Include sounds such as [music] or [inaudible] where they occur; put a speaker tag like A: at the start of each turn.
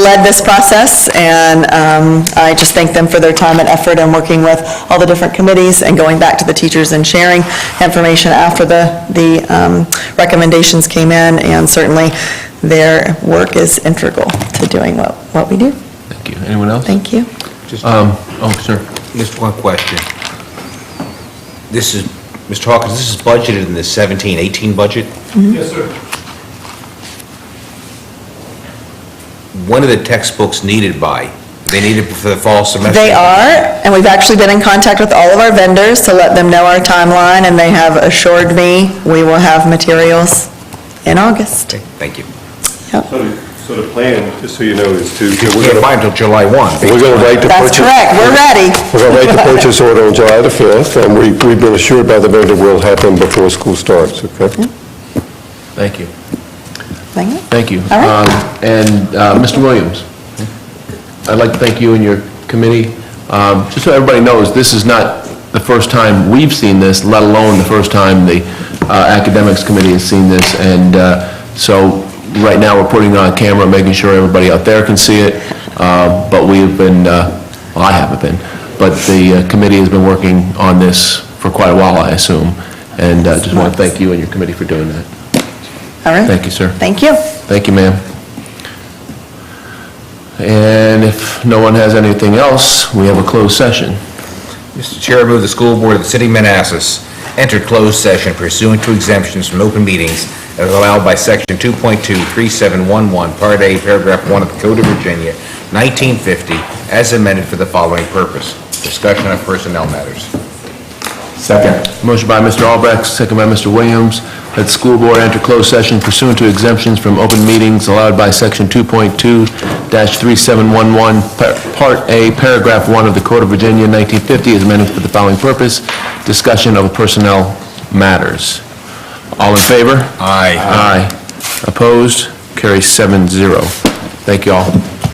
A: led this process, and um, I just thank them for their time and effort in working with all the different committees and going back to the teachers and sharing information after the, the um, recommendations came in, and certainly their work is integral to doing what, what we do.
B: Thank you. Anyone else?
A: Thank you.
B: you. Um, oh, sir.
C: Just one question. This is, Mr. Hawkins, this is budgeted in the 17, 18 budget?
D: Mm-hmm. Yes, sir.
C: When are the textbooks needed by? They needed for the fall semester?
A: They are, and we've actually been in contact with all of our vendors to let them know our timeline, and they have assured me we will have materials in August.
C: Okay, Thank you.
D: So, the- so the plan, just so you know, is to,
C: We can't buy until July 1.
E: We're going to write the
A: That's
E: purchase...
A: correct, we're ready.
E: We're going to
A: [laughs]
E: write the purchase order on July the 5th, and we- we've been assured by the vendor we'll have them before school starts, okay?
B: Thank you.
A: [laughs] Thank you.
B: Thank you.
A: All right.
B: Um, And uh, Mr. Williams, I'd like to thank you and your committee. Um, Just so everybody knows, this is not the first time we've seen this, let alone the first time the uh, Academics Committee has seen this. And uh, so, right now, we're putting it on camera, making sure everybody out there can see it. Uh, But we have been, uh, well, I haven't been, but the uh, committee has been working on this for quite a while, I assume. And uh, just want to thank you and your committee for doing that.
A: All right.
B: Thank you, sir.
A: Thank you.
B: Thank you, ma'am. And if no one has anything else, we have a closed session.
C: Mr. Chair, I move the school board of the city of Manassas enter closed session pursuant to exemptions from open meetings as allowed by section 2.23711, part A, paragraph 1 of the Code of Virginia, 1950, as amended for the following purpose: discussion of personnel matters.
B: Second. Motion by Mr. Albrecht, second by Mr. Williams, that the school board enter closed session pursuant to exemptions from open meetings allowed by section 2.2-3711, par- Part A, Paragraph 1 of the Code of Virginia, 1950, is amended for the following purpose, discussion of personnel matters. All in favor?
C: Aye.
B: Aye. Opposed? Carries seven zero. Thank you all.